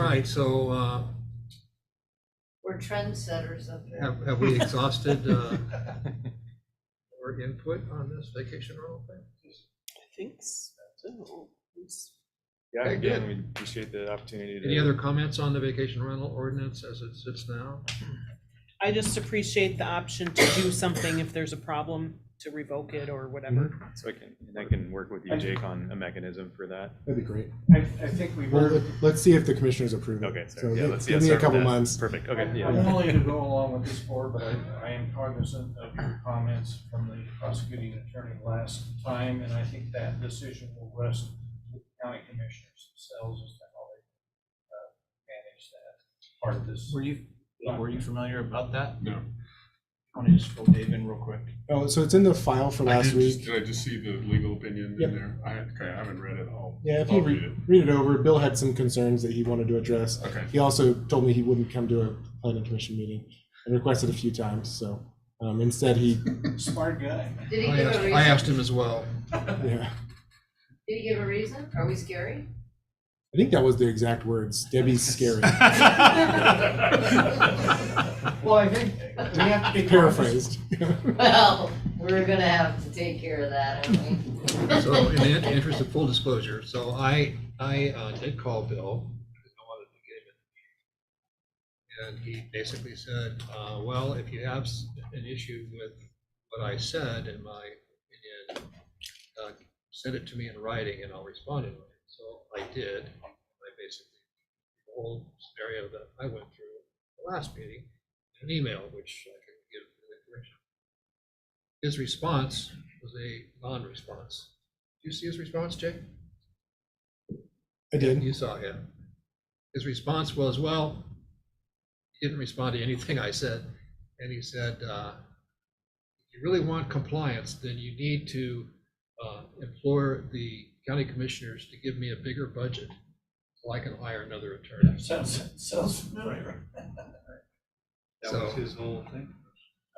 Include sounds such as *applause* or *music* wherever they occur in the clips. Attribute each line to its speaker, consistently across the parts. Speaker 1: right, so uh,
Speaker 2: We're trendsetters up here.
Speaker 1: have, have we exhausted uh, our input on this vacation rental thing?
Speaker 3: I think so. It's-
Speaker 4: Yeah,
Speaker 1: Very
Speaker 4: again, we appreciate the opportunity to.
Speaker 1: Any other comments on the vacation rental ordinance as it sits now?
Speaker 3: I just appreciate the option to do something if there's a problem, to revoke it or whatever.
Speaker 5: Mm-hmm.
Speaker 4: So I can, and I can work with you, Jake, on a mechanism for that.
Speaker 6: That'd be great.
Speaker 7: I, I think we
Speaker 6: Well,
Speaker 7: were,
Speaker 6: let- let's see if the commissioners approve it.
Speaker 4: Okay,
Speaker 6: So
Speaker 4: so yeah,
Speaker 6: give-
Speaker 4: let's, yeah,
Speaker 6: Give me a
Speaker 4: start with
Speaker 6: couple
Speaker 4: that.
Speaker 6: months.
Speaker 4: Perfect, okay,
Speaker 7: I'm
Speaker 4: yeah.
Speaker 7: I'm willing to go along with this board, but I, I am cognizant of your comments from the prosecuting attorney last time, and I think that decision will rest with the county commissioners themselves as to how they, uh, manage that part of this.
Speaker 8: Were you, were you familiar about that?
Speaker 9: No.
Speaker 8: Want to just fill Dave in real quick?
Speaker 6: Oh, so it's in the file for
Speaker 9: I
Speaker 6: last
Speaker 9: did just-
Speaker 6: week.
Speaker 9: Did I just see the legal opinion
Speaker 6: Yep.
Speaker 9: in there? I, okay, I haven't read it all.
Speaker 6: Yeah, if
Speaker 9: I'll
Speaker 6: you
Speaker 9: read it.
Speaker 6: re- read it over, Bill had some concerns that he wanted to address.
Speaker 9: Okay,
Speaker 6: He also told me he wouldn't come to a planning commission meeting. I requested a few times, so um,
Speaker 4: *laughs*
Speaker 6: instead he,
Speaker 7: Smart guy.
Speaker 2: Did he
Speaker 1: I
Speaker 2: give a
Speaker 1: asked,
Speaker 2: reason?
Speaker 1: I asked him as well.
Speaker 6: yeah.
Speaker 2: Did he give a reason? Are we scary?
Speaker 6: I think that was the exact words.
Speaker 4: *laughs*
Speaker 6: Debbie's scary.
Speaker 7: Well, I think we have to be.
Speaker 6: Paraphrased.
Speaker 2: *laughs*
Speaker 6: *laughs*
Speaker 2: Well, we're gonna have to take care of that, aren't we?
Speaker 1: So in the in- interest of full disclosure, so I, I uh, did call Bill. because I wanted to get him in. And he basically said, uh, well, if you have s- an issue with what I said in my opinion, uh, send it to me in writing and I'll respond in writing. So I did. I basically, the whole scenario that I went through the last meeting, an email, which I can give to the commission. His response was a non-response. Do you see his response, Jake?
Speaker 6: I did.
Speaker 1: You saw him. His response was, well, he didn't respond to anything I said. And he said, uh, if you really want compliance, then you need to uh, implore the county commissioners to give me a bigger budget so I can hire another attorney.
Speaker 7: *laughs* Sounds, sounds familiar.
Speaker 5: That
Speaker 1: So-
Speaker 5: was his whole thing.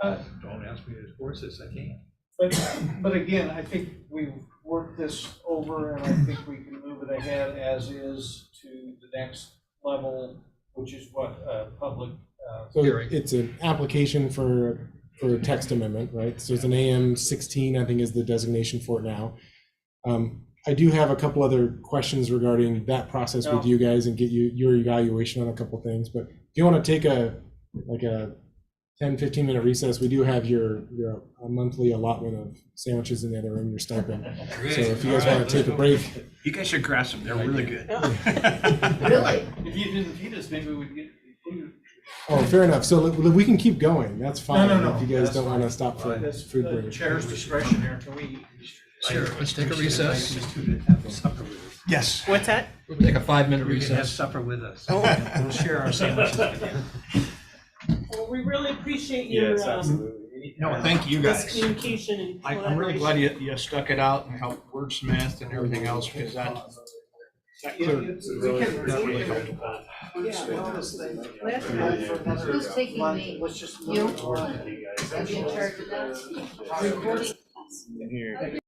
Speaker 7: Uh,
Speaker 5: Don't ask me to enforce this, I can't.
Speaker 7: But, but again, I think we've worked this over and I think we can move it ahead as is to the next level, which is what, uh, public, uh,
Speaker 6: So
Speaker 1: Hearing.
Speaker 6: it's an application for, for a text amendment, right? So it's an AM 16, I think is the designation for it now. Um, I do have a couple other questions regarding that process with
Speaker 7: No.
Speaker 6: you guys and get you, your evaluation on a couple things. But if you want to take a, like a 10, 15 minute recess, we do have your, your monthly allotment of sandwiches in the other room, your stipend. So if you guys want to take a break,
Speaker 5: You guys should grasp them, they're really good.
Speaker 2: *laughs* Really?
Speaker 7: if you didn't feed us, maybe we'd get included.
Speaker 6: oh, fair enough. So we- we can keep going. That's fine.
Speaker 7: no, no,
Speaker 6: If you guys
Speaker 7: that's
Speaker 6: don't want to
Speaker 7: fine.
Speaker 6: stop for
Speaker 7: That's
Speaker 6: food
Speaker 7: the
Speaker 6: break.
Speaker 7: uh, chair's discretion here, can we?
Speaker 1: Sure, let's take a recess.
Speaker 5: Yes.
Speaker 3: What's that?
Speaker 1: We'll take a five-minute
Speaker 5: You can have
Speaker 1: recess.
Speaker 5: supper with us. We'll share our
Speaker 1: *laughs*
Speaker 5: sandwiches with you.
Speaker 3: Well, we really appreciate your, um,
Speaker 5: No, thank you guys.
Speaker 3: this communication and
Speaker 5: I- I'm really glad you, you stuck it out and helped wordsmith and everything else, because that, that cleared
Speaker 2: Who's taking me?
Speaker 7: Let's just.
Speaker 2: You? I'll be in charge of that. Recording.
Speaker 4: Here.